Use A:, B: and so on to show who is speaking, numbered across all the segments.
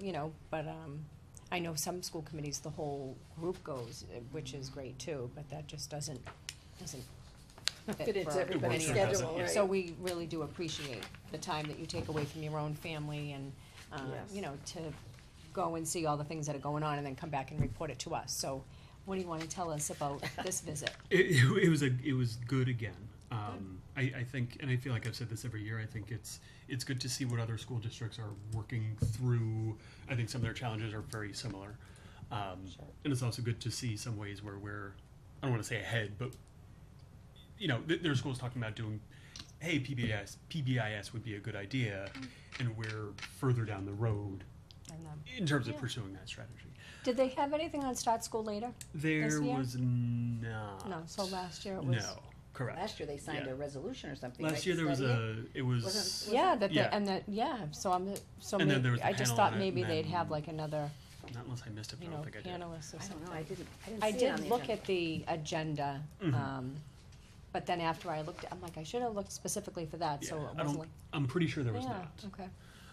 A: you know, but, um, I know some school committees, the whole group goes, eh, which is great too, but that just doesn't, doesn't
B: Fit into
A: for
B: everybody's
A: many of us.
B: schedule,
A: So
B: right?
A: we really do appreciate the time that you take away from your own family and, uh,
B: Yes.
A: you know, to go and see all the things that are going on and then come back and report it to us. So what do you wanna tell us about this visit?
C: It, it was a it was good again. Um, I, I think, and I feel like I've said this every year. I think it's it's good to see what other school districts are working through. I think some of their challenges are very similar, um, and it's also good to see some ways where we're I don't want to say ahead, but you know, th- there are schools talking about doing, hey, PBIS PBIS would be a good idea,
A: Mm.
C: and we're further down the road
A: And, um,
C: in terms of
A: Yeah.
C: pursuing that strategy.
A: Did they have anything on Start School Later?
C: There
A: year?
C: was not.
A: No, so last year it was.
C: no, correct.
B: Last year, they signed
C: Yeah.
B: a resolution or something, right?
C: Last year
B: to
C: there was
B: study it?
C: a, it was,
B: Wasn't-
A: Yeah, that, they-
C: Yeah.
A: and that, yeah, so I'm, so
C: And then there was
A: maybe,
C: the
A: I just
C: panel
A: thought
C: on it,
A: maybe
C: and
A: they'd have
C: then-
A: like another,
C: not unless I missed it, but
A: you
C: I don't
A: know,
C: think I
A: panelist
C: did.
A: or
B: I don't
A: something.
B: know, I didn't, I
A: I
B: didn't see it on
A: did
B: the
A: look
B: agenda.
A: at the agenda,
C: Mhm.
A: um, but then after I looked, I'm like, I should have looked specifically for that, so
C: Yeah,
A: it
C: I
A: wasn't
C: don't,
A: like.
C: I'm pretty sure there was
A: Yeah,
C: not.
A: Okay,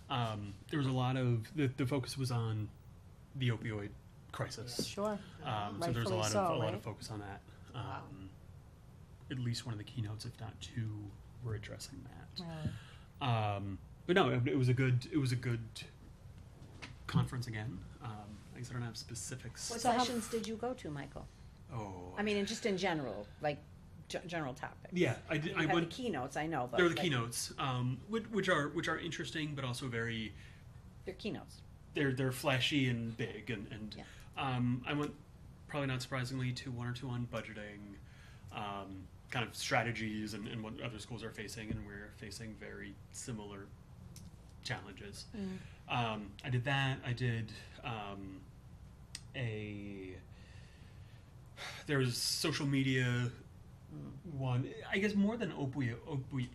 C: Um, there was a lot of, the, the focus was on the opioid crisis.
A: sure,
C: Um, so there's a
A: Rightfully
C: lot
A: so,
C: of, a lot
A: right?
C: of focus on that.
B: Wow.
C: Um, At least one of the keynotes, if not two, were addressing that.
A: Really.
C: Um, but no, it, it was a good, it was a good conference again. Um, I guess I don't have specifics.
B: What
A: So how-
B: sessions did you go to, Michael?
C: Oh.
B: I mean, in- just in general, like, ge- general topics.
C: Yeah, I did,
B: You
C: I
B: have the
C: went,
B: keynotes, I know, but.
C: There were the
B: like,
C: keynotes, um, which, which are which are interesting, but also very
B: They're keynotes.
C: they're they're flashy and big, and and
B: Yeah.
C: um, I went probably not surprisingly to one or two on budgeting, um, kind of strategies, and, and what other schools are facing, and we're facing very similar challenges. Um, I did that. I did um, a there was social media one. I guess more than opioid, opioid,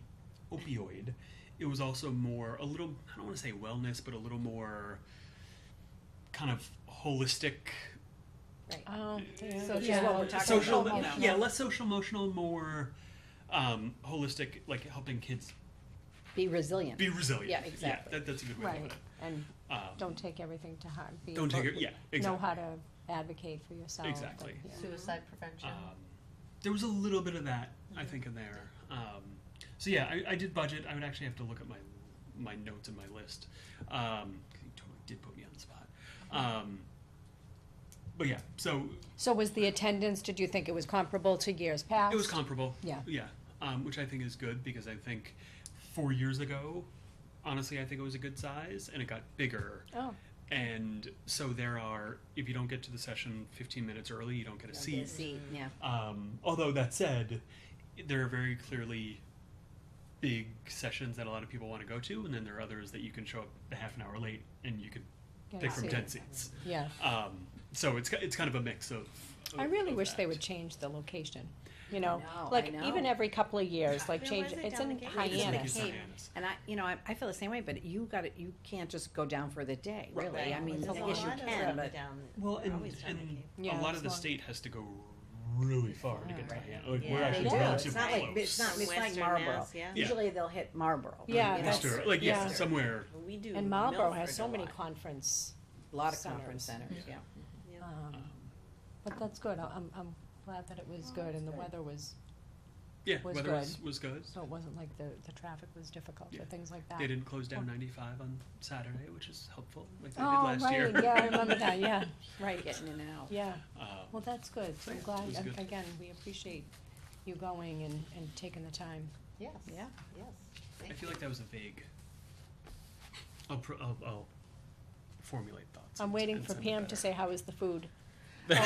C: opioid, it was also more a little. I don't want to say wellness, but a little more kind of holistic.
B: Right.
A: Oh, yeah.
B: So
A: Yeah.
B: just what we're talking about.
C: Um, social,
B: now.
C: yeah, less social emotional, more um, holistic, like helping kids
B: Be resilient.
C: be resilient.
B: Yeah, exactly.
C: that, that's a good way to
A: Right,
C: put it.
A: and
C: Um,
A: don't take everything to heart. Be-
C: don't take it. Yeah, exactly.
A: Know how to advocate for yourself. and-
C: Exactly.
A: yeah.
D: Suicide prevention.
C: Um, there was a little bit of that, I think, in there. Um, so yeah, I, I did budget. I would actually have to look at my my notes and my list. Um, 'cause you totally did put me on the spot. Um, but yeah, so
A: So was the attendance, did you think it was comparable to years past?
C: it was comparable.
A: Yeah.
C: yeah, um, which I think is good because I think four years ago, honestly, I think it was a good size, and it got bigger.
A: Oh,
C: And so there are, if you don't get to the session 15 minutes early, you don't get a
B: Don't
C: seat.
B: get a seat, yeah.
C: Um, although that said, there are very clearly big sessions that a lot of people want to go to, and then there are others that you can show up a half an hour late and you could
A: yeah,
C: pick
A: I
C: from
A: see.
C: ten seats.
A: Yeah,
C: Um, so it's ki- it's kind of a mix of.
A: I
C: of-
A: really
C: of
A: wish they
C: that.
A: would change the location, you know,
B: know, I
A: like
B: know.
A: even every couple of years, like
D: Where
A: change,
D: was it
A: it's
D: down
A: in
D: the gateway?
C: It's
D: Hyannis.
C: like
A: Hyannis.
C: it's
D: Hyannis.
C: Hyannis.
B: And I, you know, I, I feel the same way, but you gotta, you can't just go down for the day,
C: Right.
B: really. I mean,
A: It's
B: I
A: a
B: guess you
A: lot of
B: can, but.
C: Well, and,
D: always down the
C: and
A: Yeah,
C: a lot
A: it's
C: of the
A: long.
C: state has to go really far to get to
B: Right.
C: Hyannis. Like,
D: Yeah,
C: we're
D: they
C: actually
B: do.
C: relatively
B: It's not like-
C: close.
B: it's not- it's like
D: Western
B: Marlboro.
D: Mass, yeah.
C: Yeah.
B: Usually they'll hit Marlboro.
A: Yeah,
B: you know,
A: that's-
C: Worcester, like yeah,
A: yeah.
C: somewhere.
D: We do.
A: And Marlboro
D: Milford
A: has so
D: a
A: many
D: lot.
A: conference,
B: A lot of
A: centers.
B: conference centers, yeah.
D: Yeah.
A: um,
C: Um,
A: but that's good, I- I'm, I'm glad that it was good and the
B: good.
A: weather was,
C: Yeah,
A: was
C: weather
A: good.
C: was, was good.
A: so it wasn't like the, the traffic was difficult or
C: Yeah.
A: things like that.
C: They didn't close down
A: Oh.
C: 95 on Saturday, which is helpful, like they
A: Oh,
C: did last year.
A: right, yeah, I remember that, yeah, right,
B: Getting in and out.
A: yeah,
C: Um,
A: well, that's good,
C: So,
A: I'm
C: yeah,
A: glad,
C: it was
A: ag-
C: good.
A: again, we appreciate you going and, and taking the time.
D: Yes.
B: Yeah.
D: Yes.
C: I feel like that was a vague. I'll, pro- I'll, I'll formulate thoughts.
A: I'm
C: and-
A: waiting
C: and
A: for
C: send it
A: Pam to
C: better.
A: say, how is the food?
B: You're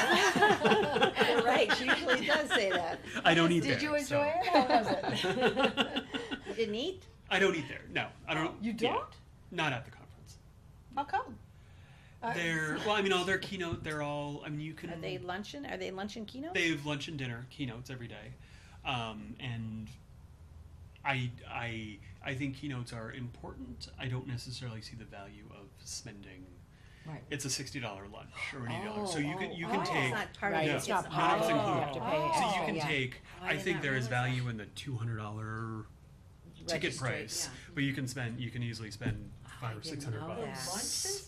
B: right, she usually does say that.
C: I don't eat there.
D: Did you
C: so-
D: enjoy it? How was it?
B: You didn't eat?
C: I don't eat there. No, I don't.
D: You
C: yeah,
D: don't?
C: not at the conference.
D: How come? Uh,
C: They're well. I mean, all their keynote. They're all. I mean, you can.
B: Are they luncheon, are they luncheon keynotes?
C: They have lunch and dinner keynotes every day, um, and I I I think keynotes are important. I don't necessarily see the value of spending.
A: Right.
C: It's a sixty dollar lunch or an eighty dollar.
A: Oh,
C: so you can
A: oh,
C: you can
B: Oh, It's
C: take
B: not part of
A: Right,
B: it.
C: No,
A: it's not
C: not
A: part of it, you
C: included.
A: have to pay
D: Oh.
C: So
A: extra,
C: you can
A: yeah.
C: take.
D: I
C: I
D: did
C: think
D: not
C: there is
D: realize
C: value in the two hundred dollar ticket
B: Registered,
C: price,
B: yeah.
C: but you can spend. You can easily spend five or
D: didn't
C: six hundred
D: know
C: bucks.
D: that.